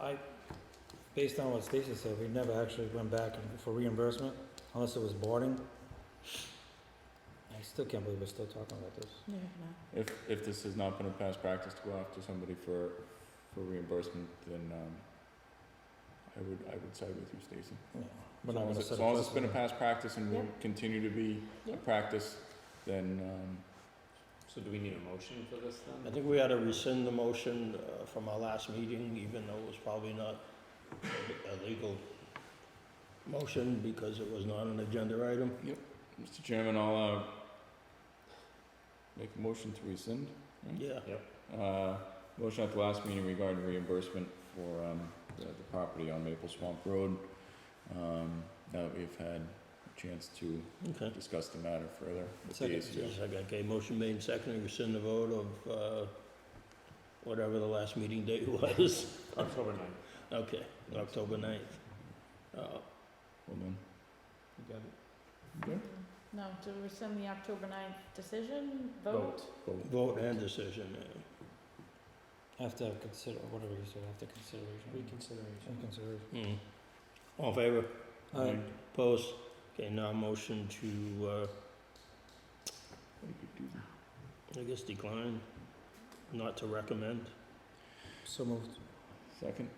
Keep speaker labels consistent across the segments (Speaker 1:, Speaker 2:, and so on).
Speaker 1: I, based on what Stacy said, we never actually went back and- for reimbursement unless it was boarding. I still can't believe we're still talking about this.
Speaker 2: Yeah,
Speaker 3: If, if this has not been a past practice to go after somebody for, for reimbursement, then, um, I would, I would side with you, Stacy.
Speaker 1: Yeah, We're not
Speaker 3: As long as,
Speaker 1: gonna
Speaker 3: it-
Speaker 1: set
Speaker 3: as
Speaker 1: a
Speaker 3: long as it's been a
Speaker 1: precedent.
Speaker 3: past practice and will continue to be a
Speaker 2: Yeah.
Speaker 3: practice, then, um,
Speaker 4: So do we need a motion for this then?
Speaker 5: I think we ought to rescind the motion uh, from our last meeting, even though it was probably not a legal motion because it was not an agenda item.
Speaker 3: Mr. Chairman, I'll, uh, make a motion to rescind.
Speaker 5: Yeah,
Speaker 3: Uh, motion at the last meeting regarding reimbursement for, um, the, the property on Maple Swamp Road. Um, now that we've had a chance to
Speaker 5: okay.
Speaker 3: discuss the matter further with the
Speaker 1: Second.
Speaker 3: ACO.
Speaker 5: Second, okay, motion made and seconded, rescind the vote of, uh, whatever the last meeting date was.
Speaker 4: October ninth.
Speaker 5: Okay, October ninth. Uh,
Speaker 3: Hold on. You got it?
Speaker 2: No, to rescind the October ninth decision,
Speaker 4: Vote.
Speaker 2: vote.
Speaker 5: vote and decision, uh,
Speaker 1: After consider, whatever you said, after consideration.
Speaker 4: Reconsideration.
Speaker 1: And consideration.
Speaker 3: Mm-hmm.
Speaker 5: hmm. All in favor?
Speaker 1: Alright,
Speaker 5: Opposed? Okay, now motion to, uh, I guess decline, not to recommend.
Speaker 1: so moved.
Speaker 3: Second?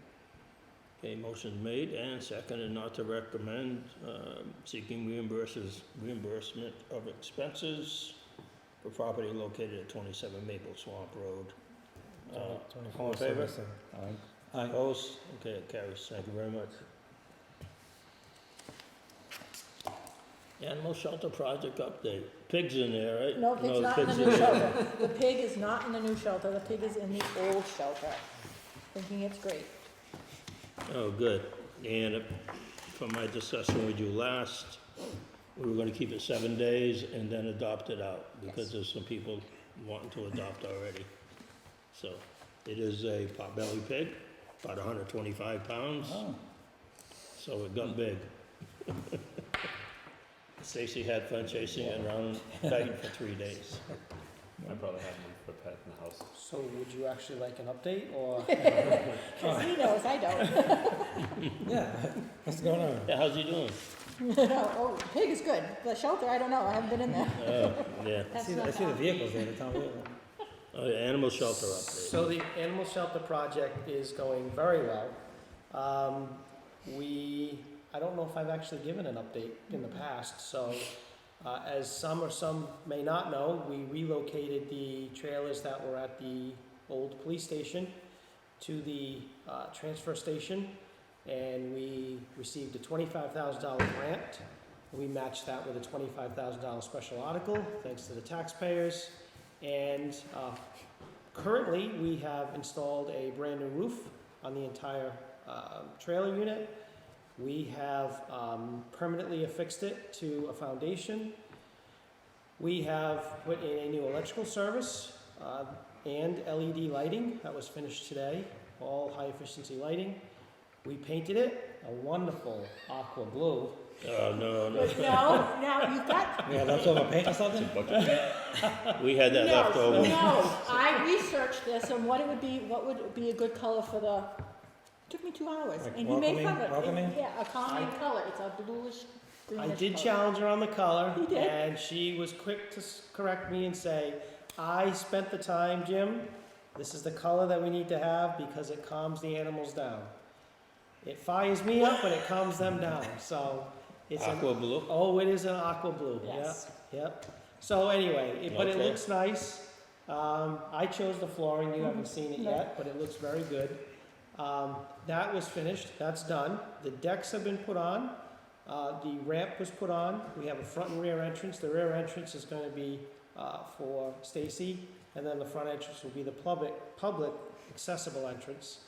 Speaker 5: Okay, motion made and seconded not to recommend, um, seeking reimburses, reimbursement of expenses for property located at twenty-seven Maple Swamp Road. Uh, all in favor?
Speaker 1: 24.77.
Speaker 3: Aye.
Speaker 1: Aye,
Speaker 5: Opposed? Okay, it carries. Thank you very much. Animal shelter project update. Pigs in there, right?
Speaker 2: No, pig's not in the
Speaker 5: pigs
Speaker 2: new shelter. The pig is not in the new shelter, the pig is in the old shelter, thinking it's great.
Speaker 5: Oh, good. And if- from my discussion with you last, we were gonna keep it seven days and then adopt it out, because there's some people wanting to adopt already. So, it is a potbelly pig, about hundred twenty-five pounds,
Speaker 3: Oh,
Speaker 5: so it got big. Stacy had fun chasing it around Dayton for three days.
Speaker 4: My brother had one for a pet in the house.
Speaker 6: So would you actually like an update or?
Speaker 2: Cause he knows, I don't.
Speaker 1: yeah, what's going on?
Speaker 5: Yeah, how's he doing?
Speaker 2: Oh, the pig is good. The shelter, I don't know, I haven't been in there.
Speaker 5: Oh, yeah.
Speaker 1: I
Speaker 2: That's
Speaker 1: see, the-
Speaker 2: not
Speaker 1: I see the
Speaker 2: bad.
Speaker 1: vehicles there, the town vehicle.
Speaker 5: Oh, yeah, animal shelter update.
Speaker 6: So the animal shelter project is going very well. Um, we, I don't know if I've actually given an update in the past, so, uh, as some or some may not know, we relocated the trailers that were at the old police station to the, uh, transfer station, and we received a twenty-five thousand dollar grant. We matched that with a twenty-five thousand dollar special article, thanks to the taxpayers, and, uh, Currently, we have installed a brand new roof on the entire um, trailer unit. We have um, permanently affixed it to a foundation. We have put in a new electrical service uh, and LED lighting that was finished today, all high efficiency lighting. We painted it a wonderful aqua blue.
Speaker 5: Oh, no, no.
Speaker 2: No, no, you've got,
Speaker 1: Yeah, that's over paint or something?
Speaker 5: We had
Speaker 2: no,
Speaker 5: that left over.
Speaker 2: no. I researched this and what it would be, what would be a good color for the, took me two hours.
Speaker 1: Like
Speaker 2: And he made
Speaker 1: welcoming-
Speaker 2: fun of it.
Speaker 1: welcoming?
Speaker 2: Yeah, a common color. It's a bluish,
Speaker 6: I
Speaker 2: greenish color.
Speaker 6: did challenge her on the color,
Speaker 2: You did?
Speaker 6: and she was quick to s- correct me and say, "I spent the time, Jim. This is the color that we need to have because it calms the animals down. It fires me up, but it calms them down. So it's an
Speaker 5: Aqua blue.
Speaker 6: oh, it is an aqua blue.
Speaker 2: Yes.
Speaker 6: Yep, yep. So anyway, it, but it
Speaker 5: Okay.
Speaker 6: looks nice. Um, I chose the flooring. You haven't seen it
Speaker 2: No.
Speaker 6: yet, but it looks very good. Um, that was finished. That's done. The decks have been put on. Uh, the ramp was put on. We have a front and rear entrance. The rear entrance is going to be uh, for Stacy, and then the front entrance will be the public, public accessible entrance.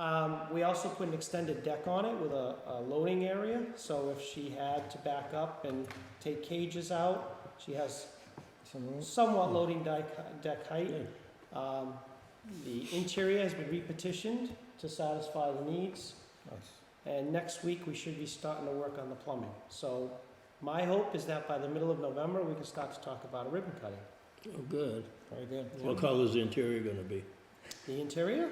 Speaker 6: Um, we also put an extended deck on it with a, a loading area, so if she had to back up and take cages out, she has
Speaker 1: Some rules?
Speaker 6: somewhat loading deck, deck height. Um, the interior has been repetitioned to satisfy the needs.
Speaker 1: Nice.
Speaker 6: And next week, we should be starting to work on the plumbing. So my hope is that by the middle of November, we can start to talk about a ribbon cutting.
Speaker 5: Oh, good.
Speaker 1: Very good.
Speaker 5: What color's the interior gonna be?
Speaker 6: The interior,